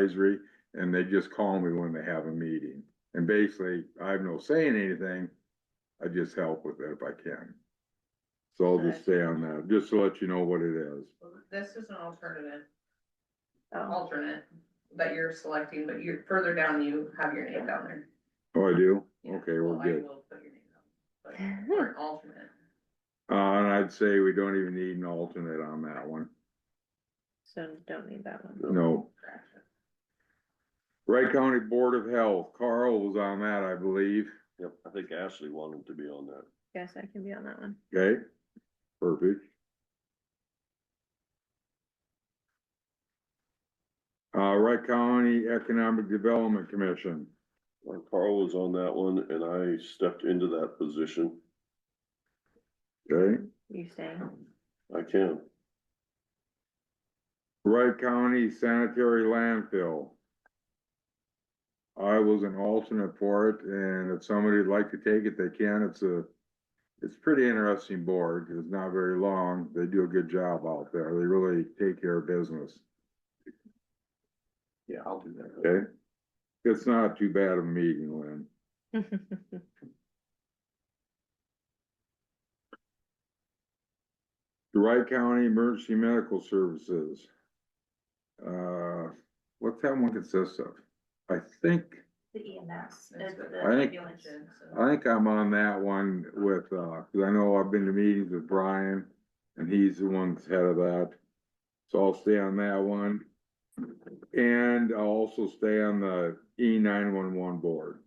advisory, and they just call me when they have a meeting. And basically, I have no say in anything, I just help with it if I can. So I'll just stay on that, just to let you know what it is. This is an alternative, Oh, alternate that you're selecting, but you're further down, you have your name down there. Oh, I do? Yeah, Okay, so we're I good. will put your name down, but Or an alternate. Uh, and I'd say we don't even need an alternate on that one. so don't need that one. No. Wright County Board of Health, Carl was on that, I believe. Yep, I think Ashley wanted to be on that. Guess I can be on that one. Okay, perfect. Uh, Wright County Economic Development Commission, Uh, Carl was on that one and I stepped into that position. okay? You staying? I can. Wright County Sanitary Landfill. I was an alternate for it, and if somebody'd like to take it, they can. It's a, it's a pretty interesting board. It's not very long. They do a good job out there. They really take care of business, Yeah, I'll do that. okay? It's not too bad a meeting, Lynn. Wright County Emergency Medical Services. Uh, what's that one consist of? I think, The EMS. That's E is what- the I think- ambulance. I think I'm on that one with, uh, cause I know I've been to meetings with Brian, and he's the one that's head of that. So I'll stay on that one. And I'll also stay on the E nine one one board.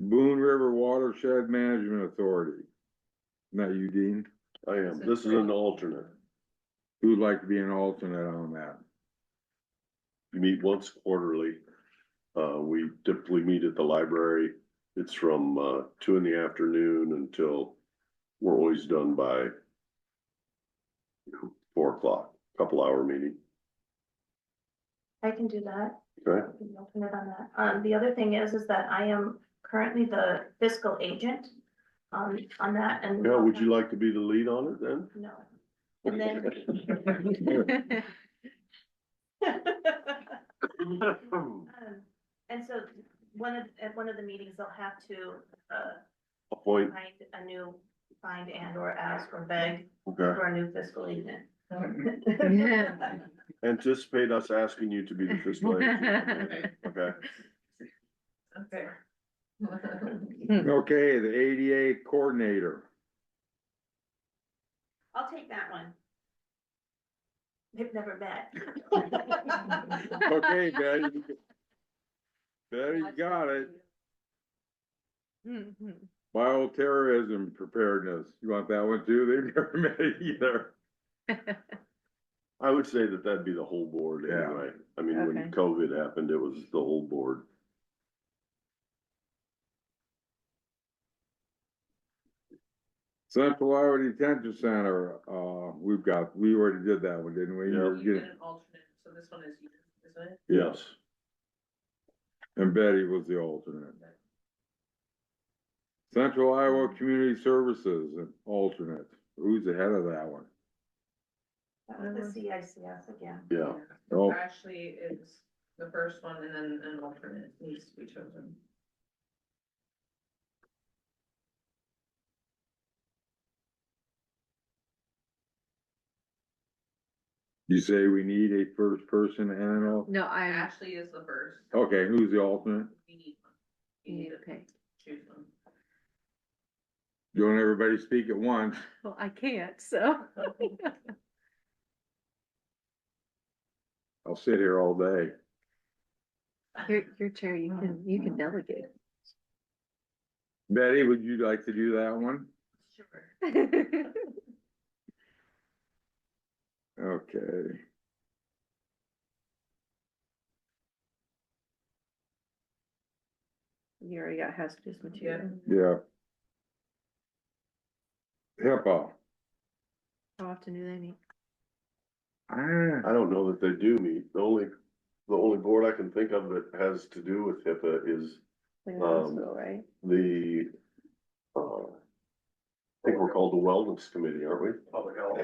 Boone River Watershed Management Authority. Not you, Dean. I am. This is an alternate. Who'd like to be an alternate on that? We meet once quarterly. Uh, we typically meet at the library. It's from, uh, two in the afternoon until we're always done by four o'clock, couple hour meeting. I can do that. Okay. I can open it on that. Um, the other thing is, is that I am currently the fiscal agent um, on that and. Yeah, would you like to be the lead on it then? No. And then, um, and so one of, at one of the meetings, they'll have to uh, Appoint, find a new, find and or ask or beg okay. for a new fiscal agent. Yeah. Anticipate us asking you to be the fiscal agent. Okay. Okay. Okay, the ADA Coordinator. I'll take that one. They've never met. Okay, Betty. you g- Betty, you got it. Bioterrorism preparedness. You want that one too? They've never met it either. I would say that that'd be the whole board Yeah. anyway. I mean, Okay. when COVID happened, it was the whole board. Central Iowa Detention Center, uh, we've got, we already did that one, didn't we? Yeah. You're You did getting- an alternate, so this one is you, isn't it? Yes. And Betty was the alternate. Central Iowa Community Services, an alternate. Who's the head of that one? That was the CICS again. Yeah, Oh. Ashley is the first one and then an alternate needs to be chosen. You say we need a first person and an alternate? No, I, Ashley is the first. Okay, who's the alternate? You need one. You need to okay, choose one. Don't everybody speak at once. well, I can't, so. I'll sit here all day. Your, your chair, you can, you can delegate. Betty, would you like to do that one? Sure. Okay. You already got hazardous material. Yeah. HIPAA, How often do they meet? ah, I don't know that they do meet. The only, the only board I can think of that has to do with HIPAA is Like Um, the hospital, right? the, uh, I think we're called the Wellness Committee, aren't we? Public Health.